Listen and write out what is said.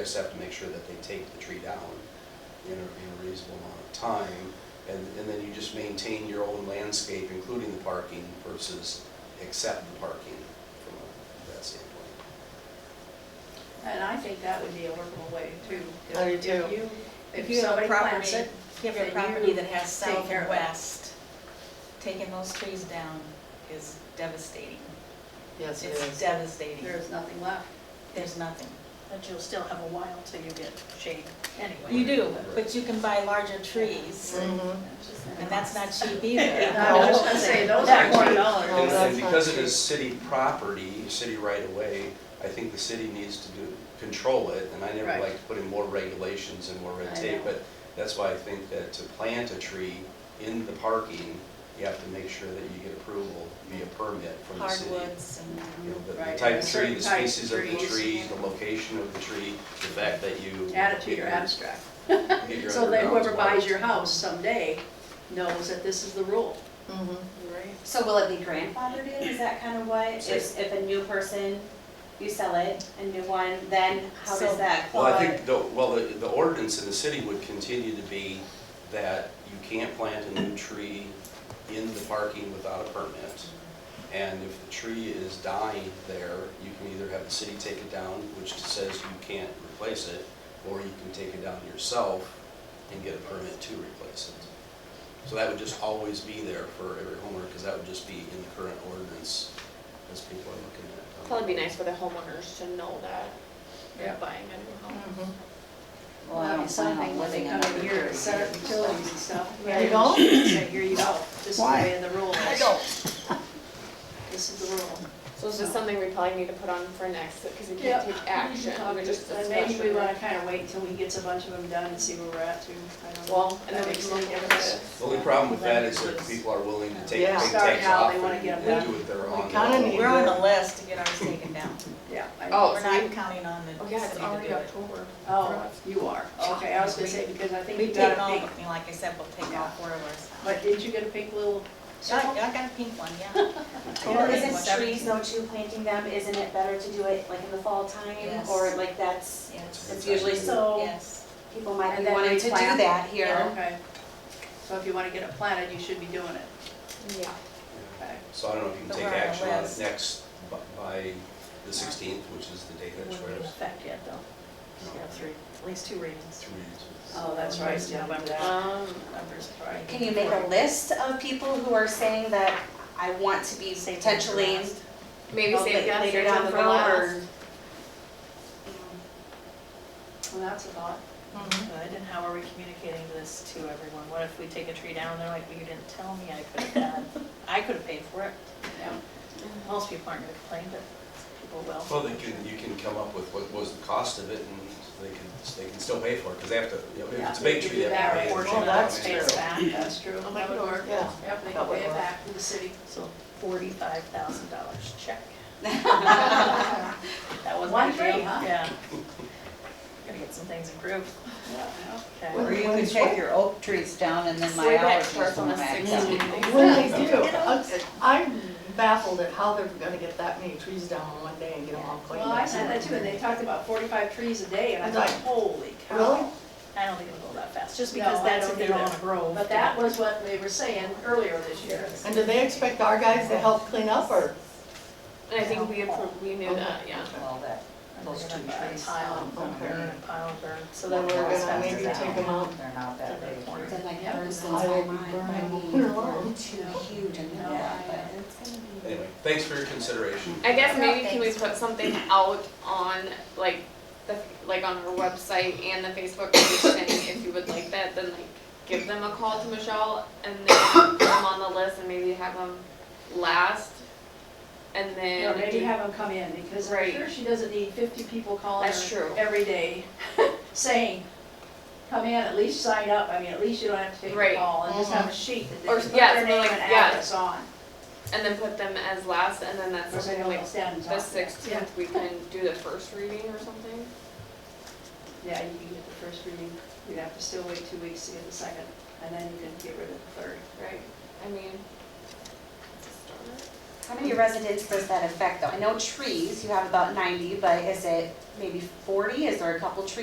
I just have to make sure that they take the tree down in a, in a reasonable amount of time. And, and then you just maintain your own landscape, including the parking versus accept the parking from a- that standpoint. And I think that would be a workable way too. I do If too. you- If If you have a somebody plants property, it, if you have a then you property that has take south care and of it. west, taking those trees down is devastating. Yes, it It's is. devastating. there's nothing left. There's nothing. But you'll still have a while till you get shade anyway. You do, but you can buy larger trees, Mhm. and that's not cheap I either. was just gonna say, those That are one twenty dollar. And- dollars. that's And because not it is city property, city right of way, I think the city needs to do, control it. And I never Right. like to put in more regulations and more red I tape, know. but that's why I think that to plant a tree in the parking, you have to make sure that you get approval via permit from the city. Hardwoods and, You know, the- The Right, type of certain tree, the type of species of the trees. tree, the location of the tree, the fact that you. Add it to get your abstract. you get your So that underground whoever water. buys your house someday knows that this is the rule. Mhm. So will it be grandfathered in, is that kind of what, if, if a new person, you sell it, a new one, then how So- does that Well, I qualify? think, the well, the the ordinance in the city would continue to be that you can't plant a new tree in the parking without a permit. And if the tree is dying there, you can either have the city take it down, which says you can't replace it, or you can take it down yourself and get a permit to replace it. So that would just always be there for every homeowner, because that would just be in the current ordinance as people are looking at. um, Probably be nice for the homeowners to know that Yeah. they're buying a new home. Mhm. Well, I don't plan on living in another area. Set up utilities and stuff. You don't? Say, here you go, this is the way of the rule. I don't. This is the rule. So it's just something we probably need to put on for next, because we can't Yeah. take action, we just And maybe we discussion. wanna kinda wait until he gets a bunch of them done and see where we're at too. I don't know. Well, and then we That can makes look at sense. this. The only problem with that is that people are willing to take big Yeah. Start takes now, off they wanna and get and them do it their We own. kinda need we're on the list to get ours taken down. Yeah. I- Oh, We're so not we- counting on the Oh, city yeah, it's to already do it. October. Oh, you are, okay, I was gonna say, because I think We've you taken got all, a I pink, mean, like I said, we'll take all four of ours. but didn't you get a pink little Yeah, circle? I got a pink one, yeah. Well, Totally. isn't trees though too, planting them, isn't it better to do it like in the fall time, Yes. or like that's, Yes, it's usually so, yes. people might be And then wanting to do that Yeah, here, Okay, so if you wanna get it planted, you should be doing it, Yeah, okay? So I don't know if you can But take we're on the action on it list. next, bu- by the sixteenth, which is the date that Wouldn't be in swears. effect yet, though. You have three, at least two readings. Three weeks. Oh, that's right, yeah, remember that. um, Numbers, right. Can you make a list of people who are saying that I want to be Save them for potentially last. maybe Well, save la- gas later or down the something for road, or? last. Well, that's a thought. Mhm. Good, and how are we communicating this to everyone? What if we take a tree down, they're like, well, you didn't tell me I could have had, I could have paid for it. Yeah. Most people aren't gonna complain, but people will. Well, they can, you can come up with what was the cost of it, and they can, they can still pay for it, because they have to, you know, if it's a big tree, they have to pay. it. Yeah, give you that Well, portion that's of it, true. back, that's true. Oh, my That would Lord, work. yeah. Yep, they That can would pay it work. back to the city. So forty-five thousand dollars check. That wasn't. One ideal. tree, huh? Yeah. Gotta get some things improved. Okay. Or you can take your oak trees down and then my Way back allergies to us on will the act 16th. up. When they do, I'm- I'm baffled at how they're gonna get that many trees down in one day and get them all cleaned up. Well, I said that too, and they talked about forty-five trees a day, and I thought, holy cow. Really? I don't think it'll go that fast, just No, because I that's don't if they're on either. a grove. But that was what they were saying earlier this year. And do they expect our guys to help clean up, or? And I think we approved, we knew that, yeah. Well, that, those two trees. Pile um, and burn, and pile and burn, so Well, that we're we're. gonna maybe take 'em out. They're not that big. Then like Yeah. burns I inside would mine, burn I them mean, clear they're along. too huge and they're Yeah. but. Anyway, thanks for your consideration. I guess Yeah, maybe can we thanks. put something out on, like, the, like on her website and the Facebook page, and if you would like that, then like, give them a call to Michelle, and then put them on the list, and maybe have them last, and then. Or maybe have them come in, because I'm Right. sure she doesn't need fifty people calling That's her true. every day saying, come in, at least sign up, I mean, at least you don't have to take a Right. Mm-hmm. call, and just have a sheet that they Or- can put yeah, their something name like- and yeah. address on. And then put them as last, and then that's Or they something don't like, stand and the talk. sixteenth, we can do the first reading or something? Yeah, you can get the first reading, you'd have to still wait two weeks to get the second, and then you can get rid of the third. Right. I mean, it's a start. How many residents does that affect though? I know trees, you have about ninety, but is it maybe forty? Is there a couple trees